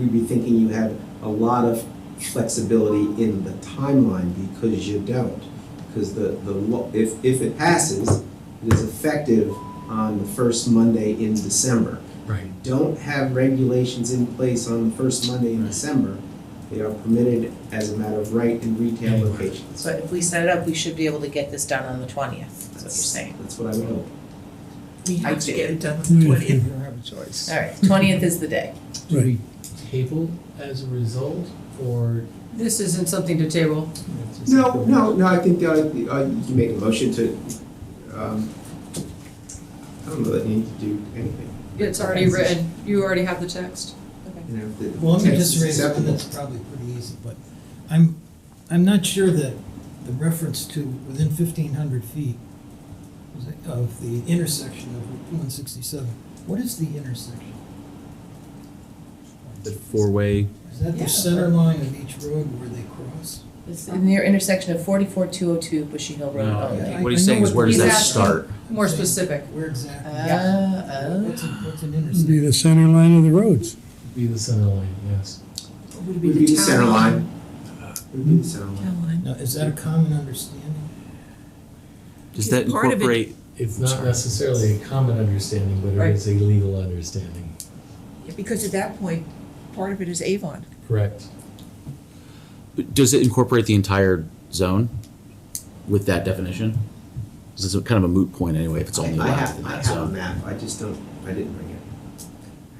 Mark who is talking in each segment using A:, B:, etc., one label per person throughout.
A: you'd be thinking you had a lot of flexibility in the timeline because you don't. Because the, the, lo- if, if it passes, it is effective on the first Monday in December.
B: Right.
A: Don't have regulations in place on the first Monday in December. They are permitted as a matter of right in retail
B: Anywhere.
A: locations.
C: So if we set it up, we should be able to get this done on the twentieth, is what you're saying.
A: That's what I would hope.
D: We
C: I
D: have to
C: do.
D: get it done on
B: We
D: the
B: have
D: twentieth. You don't have a choice.
C: All right, twentieth is the day.
B: Do we
E: table as a result, or?
F: This isn't something to table.
A: No, no, no, I think, uh, uh, you can make a motion to, um, I don't know that you need to do anything,
F: It's already written. You already have the text.
A: you know, if the
G: Well, let me
A: text
G: just
A: is
G: raise one
A: acceptable.
G: that's probably pretty easy, but I'm, I'm not sure that the reference to within fifteen hundred feet is it, of the intersection of one sixty-seven, what is the intersection?
B: The four-way,
G: Is that
C: Yeah.
G: the center line of each road where they cross?
C: It's the near intersection of forty-four two oh two Bushy Hill Road.
B: No.
C: only.
G: I-
B: what
G: I
B: he's
G: know
B: saying is
G: what
B: where does
F: he's
B: that
F: asking.
B: start?
F: More
G: Saying
F: specific.
G: Where exactly?
C: Uh, oh.
G: What's, a- what's an
H: would be
G: intersection?
H: the center line of the roads.
E: Be the center line, yes.
D: Would
A: Would be the center line. Would be the center line.
D: Town line.
G: Now, is that a common understanding?
B: Does that
D: Part of it-
B: incorporate,
E: It's not
B: Sorry.
E: necessarily a common understanding, but
F: Right.
E: it is a legal understanding.
D: Yeah, Because at that point, part of it is Avon.
E: Correct.
B: does it incorporate the entire zone with that definition? This is kind of a moot point anyway, if it's only
A: I
B: allowed in
A: have, I
B: that
A: have a
B: zone.
A: map, I just don't, I didn't bring it.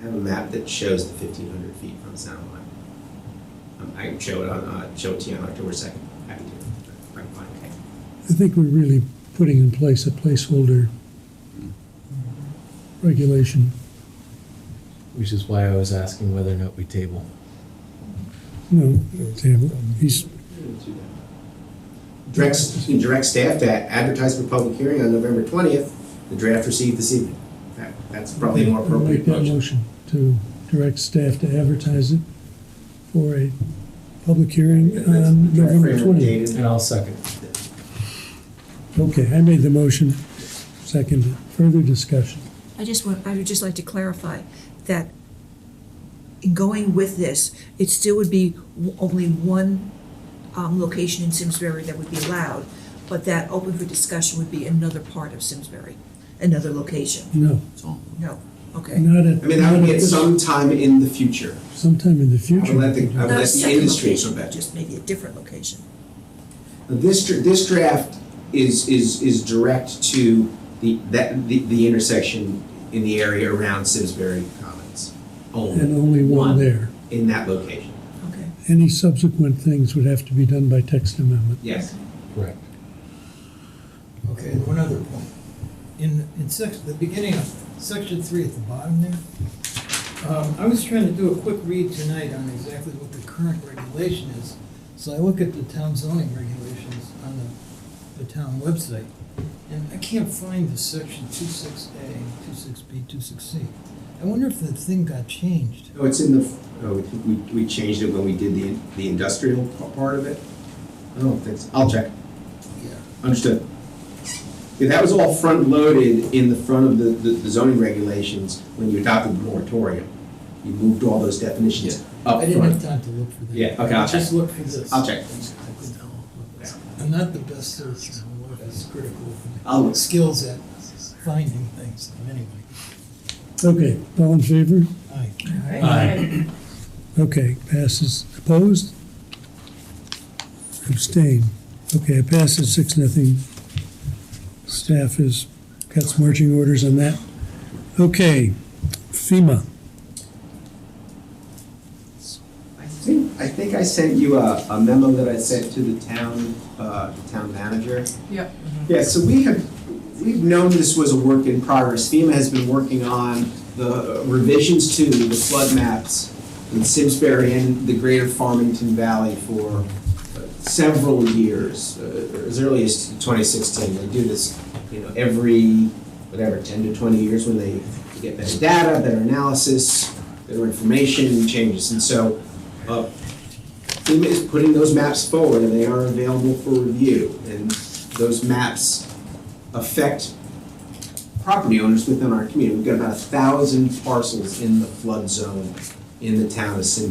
A: I have a map that shows the fifteen hundred feet from the center line. Um, I can show it on, uh, show it to you on October second, happy to, I'm fine.
H: I think we're really putting in place a placeholder regulation.
E: Which is why I was asking whether or not we table.
H: No, table. He's,
A: Direct, you can direct staff to advertise for public hearing on November twentieth, the draft received this evening. That, that's probably a more
H: I'll make
A: appropriate
H: that
A: motion.
H: motion to direct staff to advertise it for a public hearing
A: That's
H: on
A: the draft
H: November
A: framework
H: twentieth.
A: dated-
E: And I'll second.
H: Okay, I made the motion, seconded. Further discussion.
D: I just want, I would just like to clarify that in going with this, it still would be w- only one um, location in Simsbury that would be allowed, but that open for discussion would be another part of Simsbury, another location.
H: No,
B: It's all-
D: No, okay.
H: not at,
A: I mean, that would
H: not
A: be at
H: at
A: some time in the future.
H: sometime in the
A: I would
H: future.
A: let the, I would
D: Not a
A: let the
D: second
A: industry
D: location,
A: come back.
D: Just maybe a different location.
A: This, dr- this draft is, is, is direct to the, that, the, the intersection in the area around Simsbury Commons
H: And
A: only,
H: only
A: One.
H: one there.
A: in that location,
D: Okay.
H: Any subsequent things would have to be done by text amendment.
A: yes.
E: Correct.
G: Okay, and one other point. In, in section, the beginning of section three at the bottom there, um, I was trying to do a quick read tonight on exactly what the current regulation is. So I look at the town zoning regulations on the, the town website, and I can't find the section two six A, two six B, two six C. I wonder if the thing got changed.
A: Oh, it's in the, oh, we, we changed it when we did the, the industrial p- part of it? I don't think so, I'll check,
G: Yeah.
A: understood. Yeah, that was all front-loaded in the front of the, the the zoning regulations when you adopted the moratorium. You moved all those definitions up
G: I didn't have
A: front.
G: time to look for that.
A: Yeah, okay, I'll
G: Just look for this.
A: I'll check.
G: I'm not the best searcher, I'm not as critical of
A: I'll
G: my skills at finding things, but anyway.
H: Okay, all in favor?
G: Aye.
H: Okay, passes. Opposed? Abstain. Okay, it passes six, nothing. Staff has got some marching orders on that. Okay, FEMA.
A: I think, I think I sent you a, a memo that I sent to the town, uh, the town manager.
F: Yep.
A: Yeah, so we have, we've known this was a work in progress. FEMA has been working on the revisions to the flood maps in Simsbury and the greater Farmington Valley for several years, uh, as early as 2016. They do this, you know, every, whatever, 10 to 20 years when they get better data, better analysis, better information changes. And so uh, FEMA is putting those maps forward, and they are available for review. And those maps affect property owners within our community. We've got about a thousand parcels in the flood zone in the town of Simsbury.